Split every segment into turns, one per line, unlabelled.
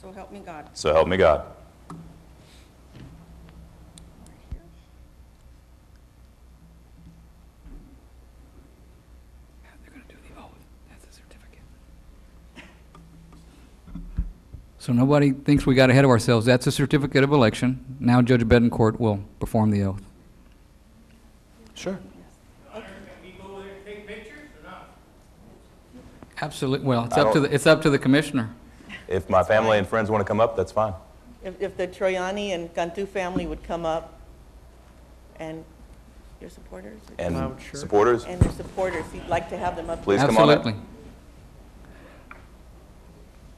So help me God.
So help me God.
They're gonna do the oath. That's a certificate. So nobody thinks we got ahead of ourselves. That's a certificate of election. Now Judge Bedencourt will perform the oath.
Sure.
Absolutely. Well, it's
I
up to,
don't-
the it's up to the commissioner.
If my family and friends want to come up, that's fine.
If, if the Troyani and Cantu family would come up and your supporters,
And supporters,
and their supporters, you'd like to have them up.
please come on up.
Absolutely.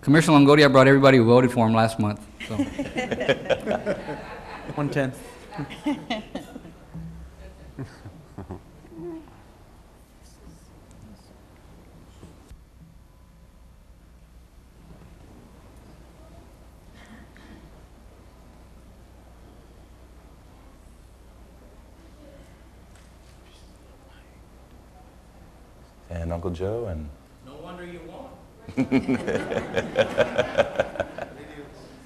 Commissioner Longoria brought everybody who voted for him last month, so.
One-tenth.
And Uncle Joe and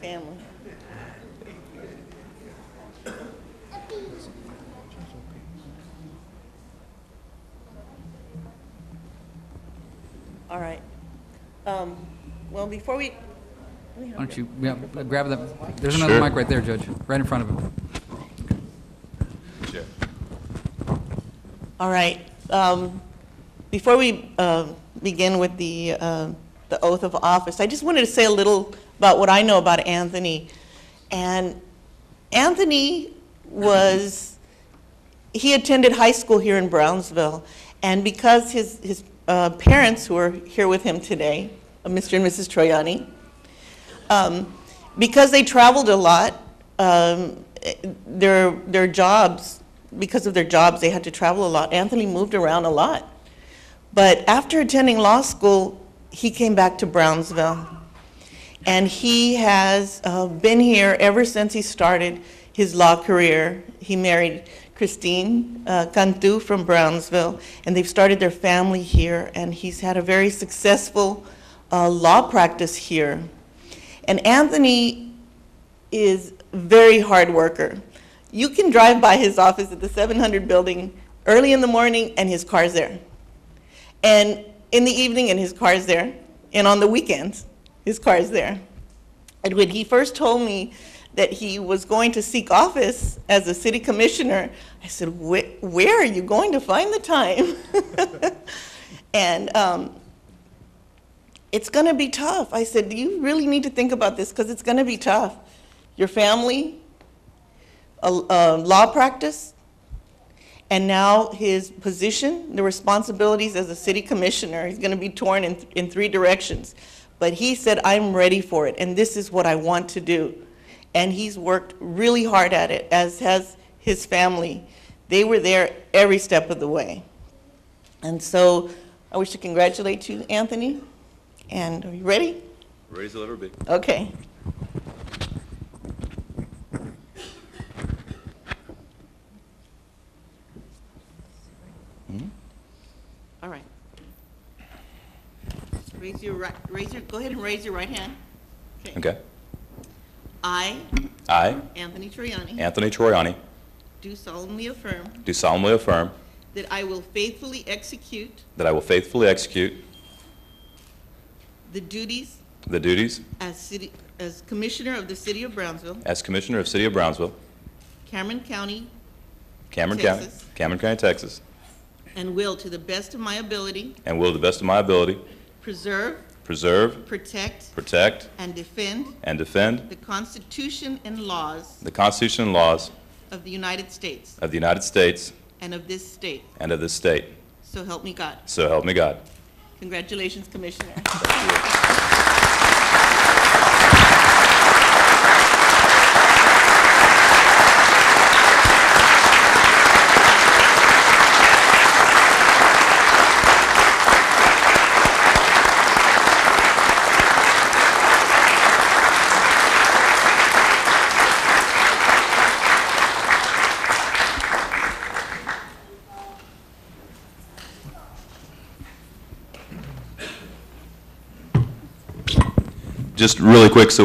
Family. All right. Um, Well, before we,
Why don't you, yeah, grab that, there's
Sure.
another mic right there, Judge, right in front of him.
all right, um, before we um, begin with the um, the oath of office, I just wanted to say a little about what I know about Anthony. And Anthony was he attended high school here in Brownsville, and because his, his uh, parents, who are here with him today, uh, Mr. and Mrs. Troyani, um, because they traveled a lot, um, eh, their, their jobs, because of their jobs, they had to travel a lot. Anthony moved around a lot. But after attending law school, he came back to Brownsville. And he has uh, been here ever since he started his law career. He married Christine uh, Cantu from Brownsville, and they've started their family here. And he's had a very successful uh, law practice here. And Anthony is a very hard worker. You can drive by his office at the 700 building early in the morning, and his car's there. And in the evening, and his car's there. And on the weekends, his car's there. And when he first told me that he was going to seek office as a city commissioner, I said, "Wh- Where are you going to find the time? and um, it's going to be tough. I said, You really need to think about this because it's going to be tough. Your family, a, a law practice, and now his position, the responsibilities as a city commissioner, he's going to be torn in, in three directions. But he said, I'm ready for it, and this is what I want to do. And he's worked really hard at it, as has his family. They were there every step of the way. And so I wish to congratulate you, Anthony. And are you ready?
Raise the lever big.
Okay. All right. Raise your right, raise your, go ahead and raise your right hand.
Okay.
I,
I,
Anthony Triani,
Anthony Troiani,
do solemnly affirm
do solemnly affirm
that I will faithfully execute
that I will faithfully execute
the duties
the duties
as city, as Commissioner of the City of Brownsville,
as Commissioner of City of Brownsville,
Cameron County,
Cameron County,
Texas.
Cameron County, Texas,
and will, to the best of my ability,
and will to the best of my ability
preserve,
preserve,
protect,
protect,
and defend
and defend
the Constitution and laws
the Constitution and laws
of the United States
of the United States
and of this state.
and of this state.
So help me God.
So help me God.
Congratulations, Commissioner.
Just really quick, so